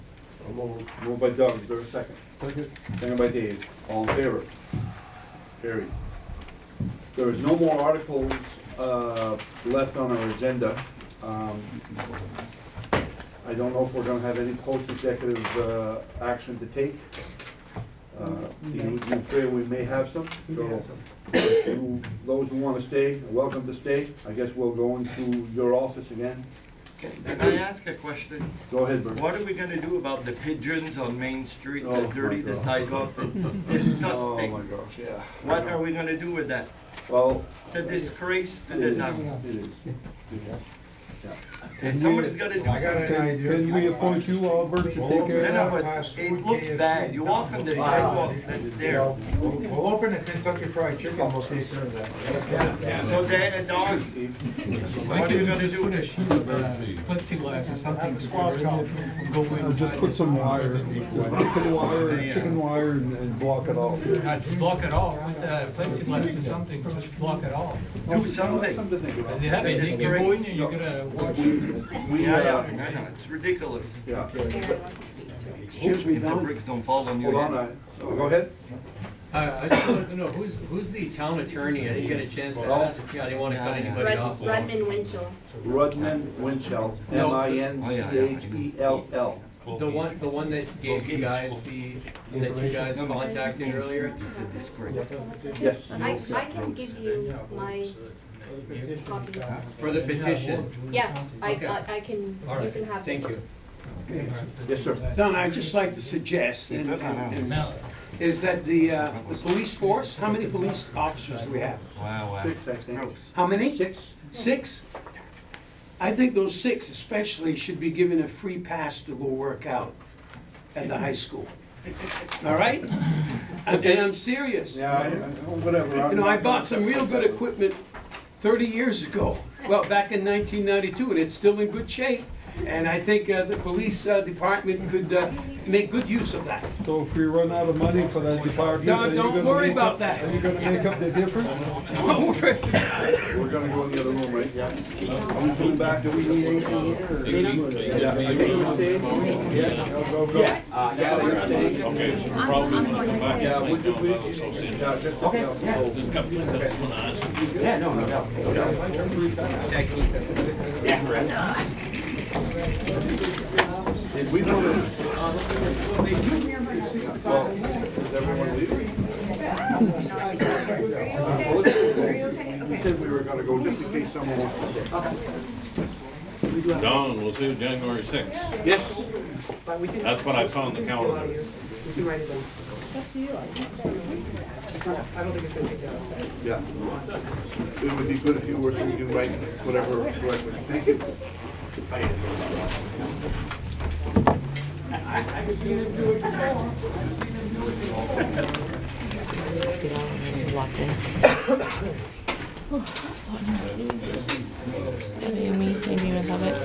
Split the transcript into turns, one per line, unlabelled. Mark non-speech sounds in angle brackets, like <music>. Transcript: Moved moved by Doug, is there a second?
Second.
Second by Dave, all in favor? Carried. There is no more articles, uh, left on our agenda. Um, I don't know if we're gonna have any post-executive, uh, action to take. Uh, you, you fear we may have some? so- you- Those who wanna stay, are welcome to stay. I guess we'll go into your office again.
Can I ask a question?
Go ahead, Bert.
What are we gonna do about the pigeons on Main Street
Oh, my
that dirty the
God.
sidewalks? It's
<laughs> Oh, my
disgusting.
gosh, yeah.
What are we gonna do with that?
Well,
It's a disgrace to
it
the
is,
town.
it is.
And somebody's gotta do
I got
something.
an idea.
Can we appoint you, Albert, to take care
No,
of
no,
that?
but it looks bad. You walk on the sidewalk that's there.
We'll we'll open a Kentucky Fried Chicken, we'll take care of that.
So they had a dog. What are you gonna do with it?
plexiglass or something.
Have a squawk shop.
Go in.
Uh, Just put some wire, chicken wire, chicken wire and- and block it off.
Uh, just block it off, with uh, plexiglass or something, just block it off.
Do something.
Something to think about.
Cause you have it, you go in there, you gotta watch.
We,
Yeah, yeah,
uh,
I know, it's ridiculous.
yeah,
If the bricks don't fall on
hold
your
on,
head.
I, oh, go ahead.
Uh, I just wanted to know, who's, who's the town attorney? I didn't get a chance to ask, Yeah, I didn't wanna cut anybody
Rud-
off.
Rudman Winchell.
Rudman Winchell, M I N C H E L L.
The one, the one that gave you guys the, that you guys contacted earlier?
It's a disgrace.
Yes.
I, I can give you my copy.
For the petition?
Yeah, I,
Okay.
I- I can,
All
you
right,
can have this.
thank you.
Yes, sir.
Don, I'd just like to suggest, and, and- is that the, uh, the police force, how many police officers do we have?
Wow, wow.
Six, I think.
Gross.
How many?
Six?
Six? I think those six especially should be given a free pass to go work out at the high school. All right? And and I'm serious.
Yeah, I, I- whatever.
You know, I bought some real good equipment thirty years ago, well, back in nineteen ninety-two, and it's still in good shape. And I think uh, the police uh, department could uh, make good use of that.
So if we run out of money for that department,
No,
are you
don't
gonna
worry
make
about
up-
that.
Are you gonna make up the difference?
Don't worry.
We're gonna go in the other room, right? Yeah. Are we coming back? Do we need anything here? or- Yeah. I think we stayed. Yeah, go, go, go.
Yeah.
Yeah, we're staying.
Okay, so
I'm-
probably
I'm
wanna
going
come back
to-
and
Yeah, would you
think about those
please?
things.
Yeah, just- yeah.
Just a couple of things I wanna ask you.
Yeah, no, no doubt.
Did we know that? Well, is everyone leaving? Well, let's go. We said we were gonna go just in case someone wants to stay.
Don, we'll see January sixth.
Yes,
That's what I saw on the calendar.
yeah. It would be good if you were, so you can write whatever, whatever. Thank you.
Doesn't mean maybe you would love it.